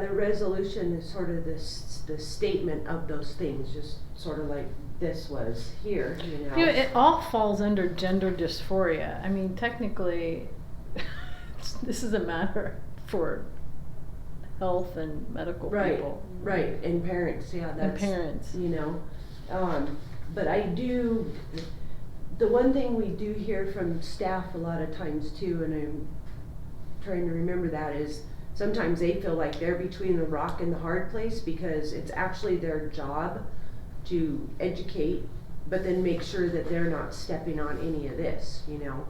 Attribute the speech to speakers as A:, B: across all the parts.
A: The resolution is sort of this, the statement of those things, just sort of like this was here, you know.
B: You know, it all falls under gender dysphoria. I mean, technically, it's- this is a matter for health and medical
A: Right,
B: people
A: right, and parents, yeah,
B: and
A: that's,
B: parents.
A: you know. Um, but I do, the one thing we do hear from staff a lot of times too, and I'm trying to remember that, is sometimes they feel like they're between the rock and the hard place because it's actually their job to educate, but then make sure that they're not stepping on any of this, you know?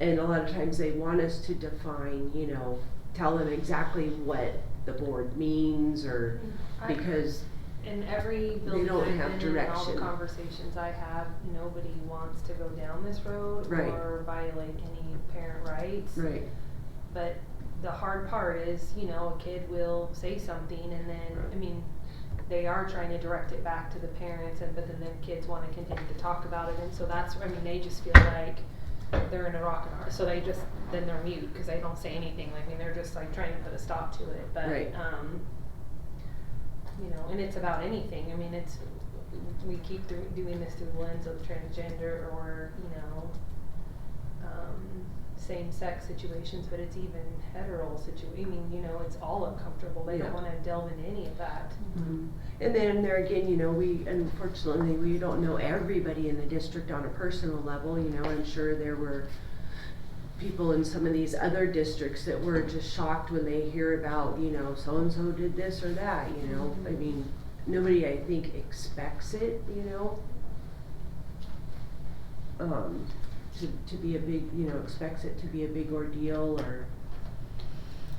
A: And a lot of times they want us to define, you know, tell them exactly what the board means or
C: I-
A: because,
C: In every building
A: don't
C: I've
A: have
C: been in, and all the
A: direction.
C: conversations I have, nobody wants to go down this road
A: Right.
C: or violate any parent rights.
A: right,
C: But the hard part is, you know, a kid will say something and then, I
A: Right.
C: mean, they are trying to direct it back to the parents and, but then the kids wanna continue to talk about it and so that's, I mean, they just feel like they're in a rock and hard, so they just, then they're mute, cause they don't say anything, I mean, they're just like trying to put a stop to it, but,
A: Right.
C: um, you know, and it's about anything, I mean, it's, we keep through, doing this through the lens of transgender or, you know, um, same-sex situations, but it's even hetero situ, I mean, you know, it's all uncomfortable, they
A: Yeah.
C: don't wanna delve into any of that.
A: And then there again, you know, we, unfortunately, we don't know everybody in the district on a personal level, you know, I'm sure there were people in some of these other districts that were just shocked when they hear about, you know, so-and-so did this or that, you know? I
C: Mhm.
A: mean, nobody, I think, expects it, you know? Um, to, to be a big, you know, expects it to be a big ordeal or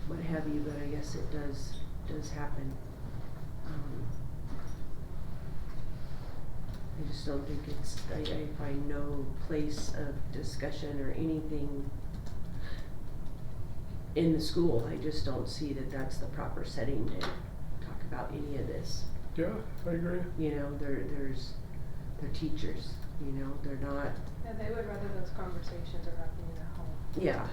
A: what have you, but I guess it does, does happen. Um, I just don't think it's, I, I find no place of discussion or anything in the school, I just don't see that that's the proper setting to talk about any of this.
D: Yeah, I agree.
A: You know, there, there's, they're teachers, you know, they're not,
C: Yeah, they would rather those conversations are happening at home,
A: yeah,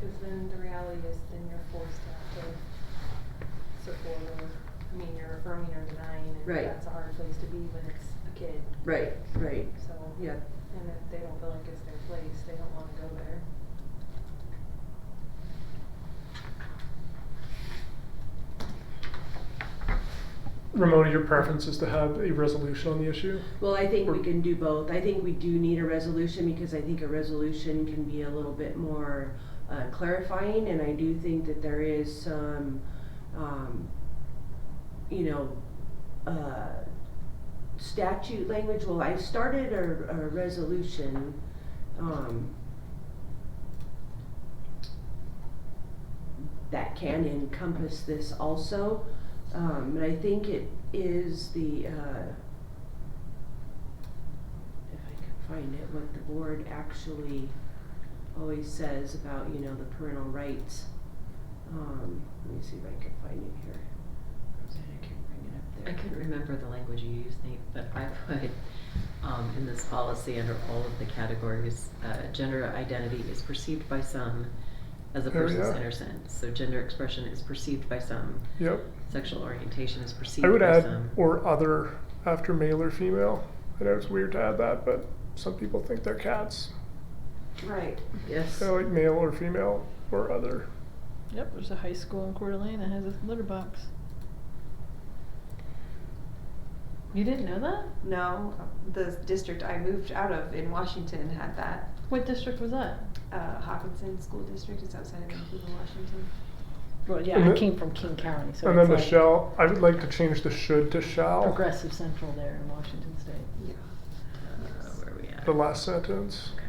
C: cause then the reality is then you're forced to have to support or, I mean, you're affirming or denying, and
A: Right.
C: that's a hard place to be when it's a kid,
A: right, right,
C: so.
A: yeah.
C: And if they don't feel like it's their place, they don't wanna go there.
D: Ramona, your preference is to have a resolution on the issue?
A: Well, I think we can do both. I think we do need a resolution because I think a resolution can be a little bit more uh, clarifying. And I do think that there is some, um, you know, uh, statute language. Well, I started a, a resolution, um, that can encompass this also. Um, and I think it is the, uh, if I can find it, what the board actually always says about, you know, the parental rights. Um, let me see if I can find it here.
E: Rosanna can bring it up
F: I
E: there.
F: couldn't remember the language you used, Nate, but I put um, in this policy under all of the categories, uh, gender identity is perceived by some as a
D: There we
F: person's
D: are.
F: inner sense. So gender expression is perceived by some,
D: Yep.
F: sexual orientation is perceived
D: I would
F: by
D: add
F: some.
D: or other after male or female. I know it's weird to add that, but some people think they're cats.
A: Right.
F: yes.
D: They're like male or female or other.
B: Yep, there's a high school in Coeur d'Alene that has a litter box. You didn't know that?
G: No, the district I moved out of in Washington had that.
B: What district was that?
G: Uh, Hopkinton School District is outside of Vancouver, Washington.
B: Well, yeah,
D: And
B: I
D: the-
B: came from King County, so
D: and then
B: it's
D: the
B: like
D: shall, I would like to change the should to shall.
B: progressive central there in Washington State,
G: Yeah.
F: Uh, where are we at?
D: The last sentence.
F: Okay.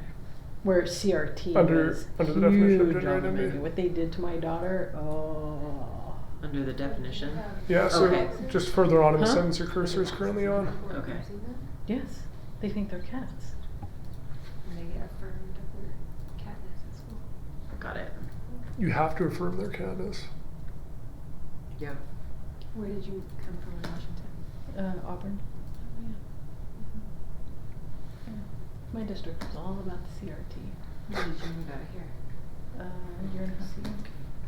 B: where CRT
D: Under-
B: was
D: under the definition of
B: huge
D: gender
B: on the
D: identity?
B: menu. What they did to my daughter, oh.
F: Under the definition.
D: Yeah, so
F: Okay.
D: just further on in the
B: Huh?
D: sentence your cursor is currently on.
F: Okay.
B: Yes, they think they're cats.
G: And they get affirmed of their catness at school.
F: Got it.
D: You have to affirm their catness.
A: Yeah.
G: Where did you come from in Washington?
B: Uh, Auburn. Oh, yeah. Yeah. My district was all about the CRT.
G: When did you move out of here?
B: Uh, a year and a half ago.